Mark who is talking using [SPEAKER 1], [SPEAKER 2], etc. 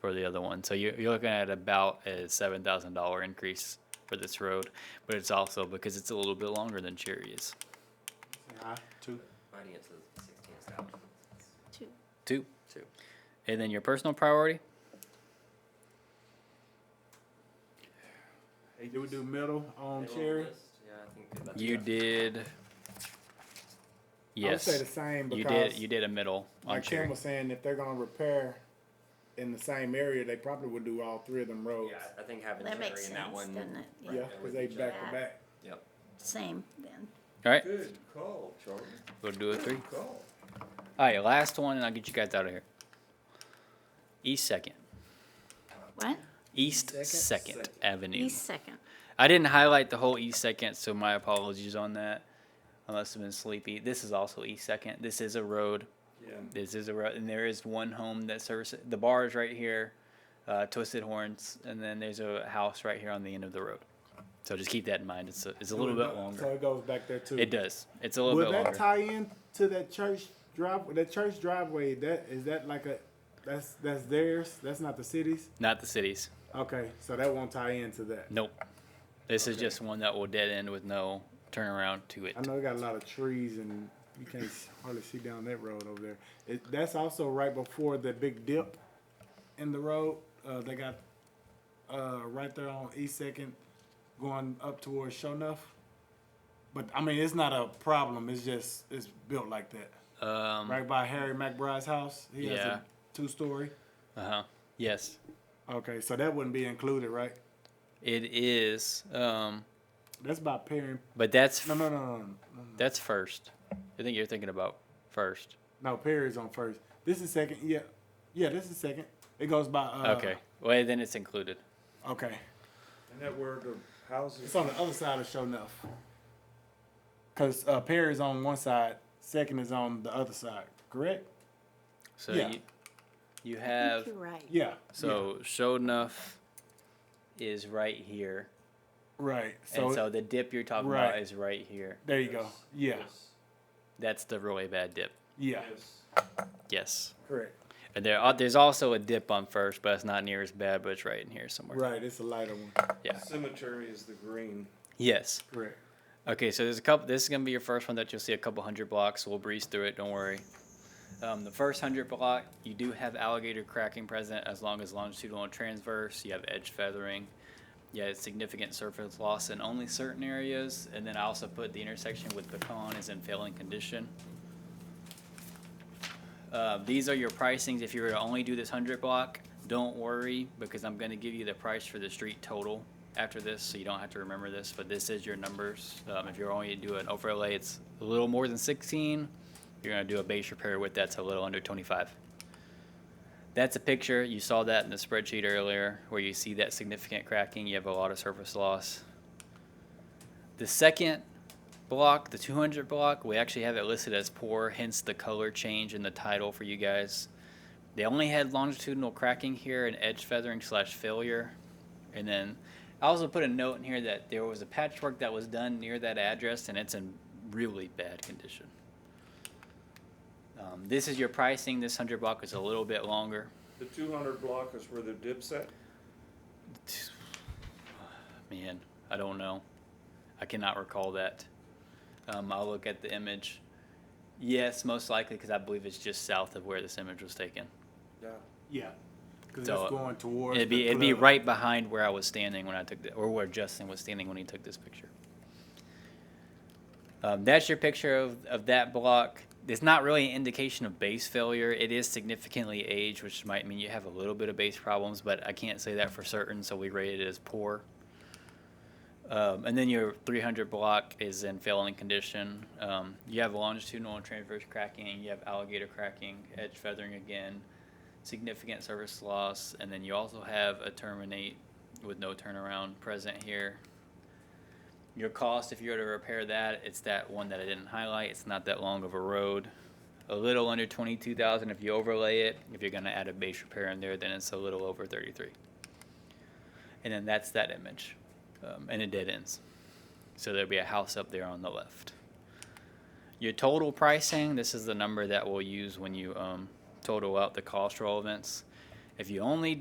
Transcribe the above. [SPEAKER 1] for the other one. So you're, you're looking at about a seven thousand dollar increase for this road, but it's also because it's a little bit longer than Cherry is.
[SPEAKER 2] Aye, two.
[SPEAKER 3] Finance is sixteen establishments.
[SPEAKER 4] Two.
[SPEAKER 1] Two.
[SPEAKER 3] Two.
[SPEAKER 1] And then your personal priority.
[SPEAKER 2] Do we do middle on
[SPEAKER 3] They were
[SPEAKER 2] Cherry?
[SPEAKER 3] list, Yeah, I think. that's-
[SPEAKER 1] You did.
[SPEAKER 5] I would say
[SPEAKER 1] Yes,
[SPEAKER 5] the same
[SPEAKER 1] you
[SPEAKER 5] because
[SPEAKER 1] did. You did a middle on
[SPEAKER 5] like Kim
[SPEAKER 1] Cherry.
[SPEAKER 5] was saying, if they're gonna repair in the same area, they probably would do all three of them roads.
[SPEAKER 3] Yeah, I think having
[SPEAKER 4] That makes
[SPEAKER 3] Cherry in that
[SPEAKER 4] sense,
[SPEAKER 3] one.
[SPEAKER 4] doesn't it?
[SPEAKER 3] right,
[SPEAKER 5] Yeah,
[SPEAKER 3] that
[SPEAKER 5] cause
[SPEAKER 3] would
[SPEAKER 5] they
[SPEAKER 3] be
[SPEAKER 5] back
[SPEAKER 3] Cherry.
[SPEAKER 5] to back.
[SPEAKER 3] Yep.
[SPEAKER 4] Same then.
[SPEAKER 1] All right,
[SPEAKER 3] Good call, Charlie.
[SPEAKER 1] we'll do a three.
[SPEAKER 3] call.
[SPEAKER 1] All right, last one, and I'll get you guys out of here. East Second,
[SPEAKER 4] What?
[SPEAKER 1] East
[SPEAKER 5] Second?
[SPEAKER 1] Second, Avenue.
[SPEAKER 4] He's second.
[SPEAKER 1] I didn't highlight the whole East Second, so my apologies on that. I must have been sleepy. This is also East Second. This is a road.
[SPEAKER 3] Yeah.
[SPEAKER 1] This is a road, and there is one home that services the bar is right here, uh, Twisted Horns, and then there's a house right here on the end of the road. So just keep that in mind. It's a, it's a little bit
[SPEAKER 5] So
[SPEAKER 1] longer.
[SPEAKER 5] it goes back there too.
[SPEAKER 1] It does. It's a little
[SPEAKER 5] Would
[SPEAKER 1] bit
[SPEAKER 5] that
[SPEAKER 1] longer.
[SPEAKER 5] tie in to that church drive, that church driveway, that, is that like a, that's, that's theirs, that's not the city's?
[SPEAKER 1] Not the cities.
[SPEAKER 5] Okay, so that won't tie into that.
[SPEAKER 1] Nope. This is
[SPEAKER 5] Okay.
[SPEAKER 1] just one that will dead end with no turnaround to it.
[SPEAKER 5] I know they got a lot of trees and you can't s- hardly see down that road over there. It, that's also right before the big dip in the road. Uh, they got uh, right there on East Second, going up towards Shownuff. But I mean, it's not a problem. It's just it's built like that,
[SPEAKER 1] Um,
[SPEAKER 5] right by Harry McBride's house. He has
[SPEAKER 1] Yeah.
[SPEAKER 5] a two-story.
[SPEAKER 1] Uh huh. Yes,
[SPEAKER 5] Okay, so that wouldn't be included, right?
[SPEAKER 1] it is. Um,
[SPEAKER 5] That's by Perry.
[SPEAKER 1] but that's
[SPEAKER 5] No, no, no, no, no.
[SPEAKER 1] That's first. I think you're thinking about first.
[SPEAKER 5] No, Perry's on first. This is second. Yeah, yeah. This is second. It goes by. Uh,
[SPEAKER 1] okay. Well, then it's included.
[SPEAKER 5] Okay.
[SPEAKER 2] And that where the houses.
[SPEAKER 5] It's on the other side of Shownuff. Cause uh, Perry's on one side, second is on the other side. Correct?
[SPEAKER 1] So
[SPEAKER 5] Yeah.
[SPEAKER 1] you, you
[SPEAKER 4] I think
[SPEAKER 1] have
[SPEAKER 4] you're right.
[SPEAKER 5] Yeah.
[SPEAKER 1] so show enough is right here,
[SPEAKER 5] yeah, right.
[SPEAKER 1] and
[SPEAKER 5] So,
[SPEAKER 1] so the dip you're talking about
[SPEAKER 5] right.
[SPEAKER 1] is right here.
[SPEAKER 5] there you go. Yeah.
[SPEAKER 1] That's the really bad dip.
[SPEAKER 5] Yeah.
[SPEAKER 1] Yes.
[SPEAKER 5] Correct.
[SPEAKER 1] And there are, there's also a dip on first, but it's not near as bad. But it's right in here somewhere.
[SPEAKER 5] Right. It's a lighter one.
[SPEAKER 1] Yeah.
[SPEAKER 2] Cemetery is the green.
[SPEAKER 1] Yes.
[SPEAKER 5] Correct.
[SPEAKER 1] Okay, so there's a couple. This is gonna be your first one that you'll see a couple hundred blocks. We'll breeze through it. Don't worry. Um, the first hundred block, you do have alligator cracking present as long as longitudinal and transverse. You have edge feathering. You have significant surface loss in only certain areas, and then I also put the intersection with pecan is in failing condition. Uh, these are your pricings. If you were to only do this hundred block, don't worry because I'm going to give you the price for the street total after this, so you don't have to remember this. But this is your numbers. Um, if you're only to do an overlay, it's a little more than 16. You're going to do a base repair with that's a little under 25. That's a picture. You saw that in the spreadsheet earlier where you see that significant cracking. You have a lot of surface loss. The second block, the 200 block, we actually have it listed as poor, hence the color change in the title for you guys. They only had longitudinal cracking here and edge feathering slash failure. And then I also put a note in here that there was a patchwork that was done near that address and it's in really bad condition. Um, this is your pricing. This 100 block is a little bit longer.
[SPEAKER 2] The two hundred block is where the dip's at?
[SPEAKER 1] Man, I don't know. I cannot recall that. Um, I'll look at the image. Yes, most likely because I believe it's just south of where this image was taken.
[SPEAKER 2] Yeah.
[SPEAKER 5] Yeah. Cause
[SPEAKER 1] So,
[SPEAKER 5] it's going towards.
[SPEAKER 1] It'd
[SPEAKER 5] the
[SPEAKER 1] be it'd be
[SPEAKER 5] club.
[SPEAKER 1] right behind where I was standing when I took the, or where Justin was standing when he took this picture. Um, that's your picture of, of that block. It's not really an indication of base failure. It is significantly aged, which might mean you have a little bit of base problems, but I can't say that for certain, so we rated it as poor. Um, and then your 300 block is in failing condition. Um, you have longitudinal and transverse cracking. You have alligator cracking, edge feathering again, significant service loss, and then you also have a terminate with no turnaround present here. Your cost, if you were to repair that, it's that one that I didn't highlight. It's not that long of a road. A little under 22,000 if you overlay it. If you're going to add a base repair in there, then it's a little over 33. And then that's that image. Um, and it dead ends. So there'll be a house up there on the left. Your total pricing, this is the number that we'll use when you um, total out the cost for all events. If you only